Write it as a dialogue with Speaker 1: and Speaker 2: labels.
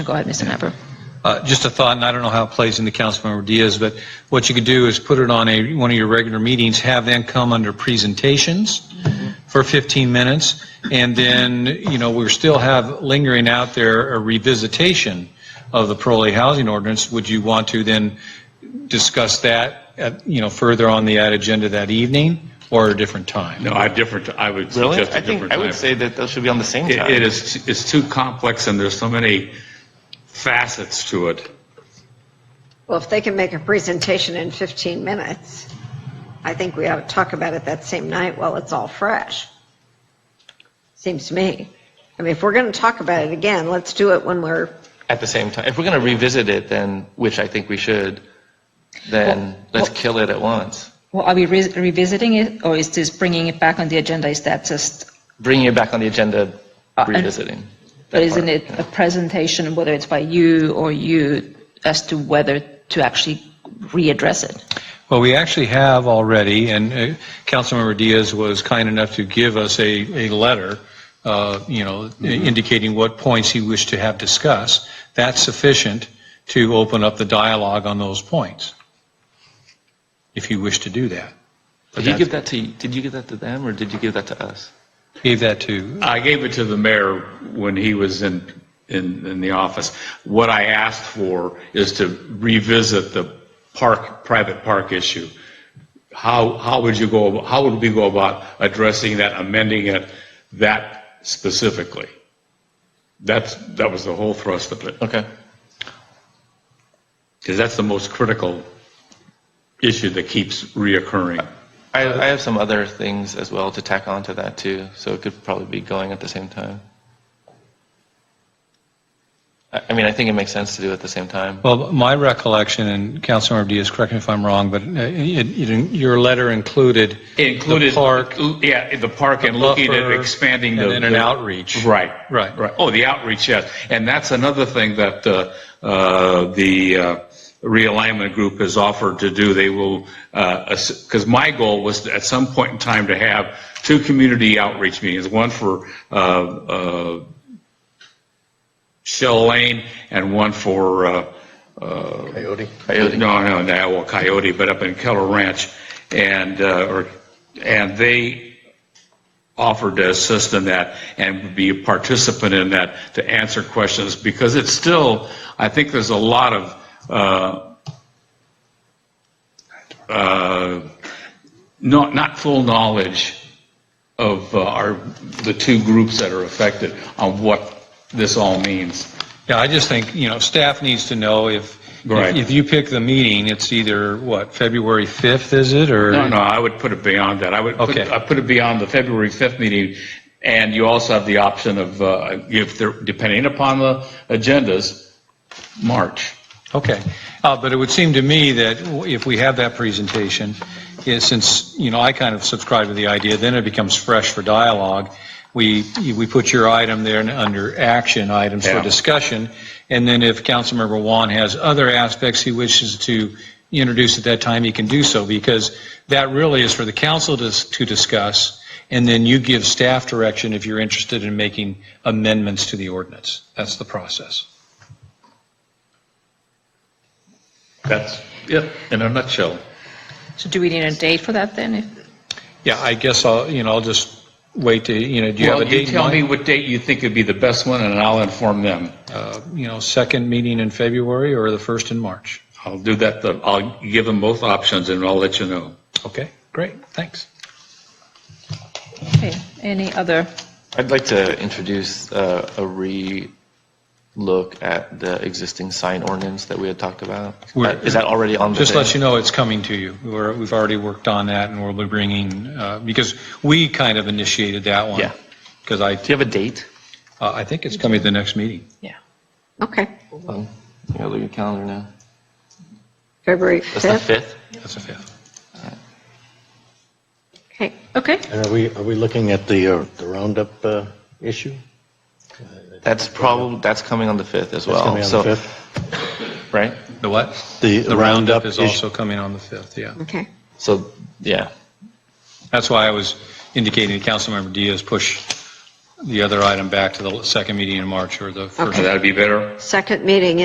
Speaker 1: Go ahead, Mr. Knapper.
Speaker 2: Uh, Just a thought, and I don't know how it plays into Councilmember Diaz, but what you could do is put it on a, one of your regular meetings, have them come under presentations for 15 minutes, and then, you know, we still have lingering out there a revisitation of the parolee housing ordinance. Would you want to then discuss that, at- you know, further on the ad agenda that evening or at a different time?
Speaker 3: No, I different, I would
Speaker 4: Really?
Speaker 3: suggest
Speaker 4: I
Speaker 3: a
Speaker 4: think,
Speaker 3: different
Speaker 4: I
Speaker 3: time.
Speaker 4: would say that those should be on the same
Speaker 3: It
Speaker 4: time.
Speaker 3: it is, it's too complex and there's so many facets to it.
Speaker 5: Well, if they can make a presentation in 15 minutes, I think we ought to talk about it that same night while it's all fresh. Seems to me. I mean, if we're going to talk about it again, let's do it when we're,
Speaker 4: At the same time. If we're going to revisit it, then, which I think we should, then let's kill it at once.
Speaker 1: Well, are we re- revisiting it, or is this bringing it back on the agenda? Is that just,
Speaker 4: Bringing it back on the agenda,
Speaker 1: Uh, and-
Speaker 4: revisiting.
Speaker 1: but
Speaker 4: That
Speaker 1: isn't
Speaker 4: part,
Speaker 1: it
Speaker 4: yeah.
Speaker 1: a presentation, whether it's by you or you, as to whether to actually readdress it?
Speaker 2: Well, we actually have already, and uh, Councilmember Diaz was kind enough to give us a, a letter, uh, you know, indicating what points he wished to have discussed. That's sufficient to open up the dialogue on those points, if you wish to do that.
Speaker 4: Did you give that to, did you give that to them or did you give that to us?
Speaker 2: Gave that to,
Speaker 3: I gave it to the mayor when he was in, in, in the office. What I asked for is to revisit the park, private park issue. How, how would you go, how would we go about addressing that, amending it, that specifically? That's, that was the whole thrust of it.
Speaker 4: Okay.
Speaker 3: Because that's the most critical issue that keeps reoccurring.
Speaker 4: I, I have some other things as well to tack on to that too, so it could probably be going at the same time. I, I mean, I think it makes sense to do it at the same time.
Speaker 2: well, my recollection, and Councilmember Diaz, correct me if I'm wrong, but uh, it- it- your letter included the
Speaker 3: Included,
Speaker 2: park,
Speaker 3: yeah, the park and
Speaker 2: the
Speaker 3: looking at
Speaker 2: buffer,
Speaker 3: expanding the.
Speaker 2: and then an
Speaker 3: the-
Speaker 2: outreach.
Speaker 3: Right.
Speaker 2: Right.
Speaker 3: Right. Oh, the outreach, yes. And that's another thing that uh, uh, the uh, realignment group has offered to do. They will, because my goal was at some point in time to have two community outreach meetings, one for uh, uh, Shell Lane and one for uh,
Speaker 4: Coyote.
Speaker 3: no, no, no, well, Coyote, but up in Keller Ranch, and, uh, or, and they offered to assist in that and be a participant in that to answer questions, because it's still, I think there's a lot of, uh, uh, not, not full knowledge of uh, our, the two groups that are affected on what this all means.
Speaker 2: Yeah, I just think, you know, staff needs to know if,
Speaker 3: Right.
Speaker 2: if you pick the meeting, it's either, what, February 5th, is it, or?
Speaker 3: No, no, I would put it beyond that. I would, put-
Speaker 2: Okay.
Speaker 3: I put it beyond the February 5th meeting, and you also have the option of, uh, if they're, depending upon the agendas, March.
Speaker 2: Okay, Uh, but it would seem to me that if we have that presentation, is since, you know, I kind of subscribe to the idea, then it becomes fresh for dialogue. We, we put your item there under action items for
Speaker 3: Yeah.
Speaker 2: discussion, and then if Councilmember Juan has other aspects he wishes to introduce at that time, he can do so, because that really is for the council to, to discuss, and then you give staff direction if you're interested in making amendments to the ordinance. That's the process.
Speaker 3: That's it, in a nutshell.
Speaker 1: So do we need a date for that then? If-
Speaker 2: Yeah, I guess I'll, you know, I'll just wait to, you know, do you have
Speaker 3: Well,
Speaker 2: a
Speaker 3: you
Speaker 2: date in
Speaker 3: tell me
Speaker 2: mind?
Speaker 3: what date you think would be the best one, and I'll inform them.
Speaker 2: Uh, You know, second meeting in February or the first in March?
Speaker 3: I'll do that, the- I'll give them both options, and I'll let you know.
Speaker 2: Okay, great, thanks.
Speaker 1: Okay, any other?
Speaker 4: I'd like to introduce uh, a re-look at the existing sign ordinance that we had talked about. Uh,
Speaker 2: We're-
Speaker 4: Is that already on the?
Speaker 2: Just let
Speaker 4: thing?
Speaker 2: you know it's coming to you. We're, we've already worked on that and we'll be bringing, uh, because we kind of initiated that one.
Speaker 4: Yeah.
Speaker 2: Because I,
Speaker 4: Do you have a date?
Speaker 2: uh, I think it's coming to the next meeting.
Speaker 1: Yeah.
Speaker 5: okay,
Speaker 4: Um, you gotta look at your calendar now.
Speaker 5: February
Speaker 4: That's the
Speaker 5: 5th.
Speaker 4: 5th?
Speaker 2: That's the fifth.
Speaker 5: Okay,
Speaker 1: Okay,
Speaker 6: And are we, are we looking at the uh, the Roundup uh, issue?
Speaker 4: That's probably, that's coming on the 5th as
Speaker 6: That's
Speaker 4: well.
Speaker 6: coming on
Speaker 4: So,
Speaker 6: the 5th?
Speaker 4: Right?
Speaker 2: The what? The roundup is also coming on the fifth, yeah.
Speaker 5: okay.
Speaker 4: So, yeah.
Speaker 2: That's why I was indicating to Councilmember Diaz, push
Speaker 7: the other item back to the second meeting in March or the first
Speaker 5: Okay.
Speaker 2: That'd be better?
Speaker 5: Second meeting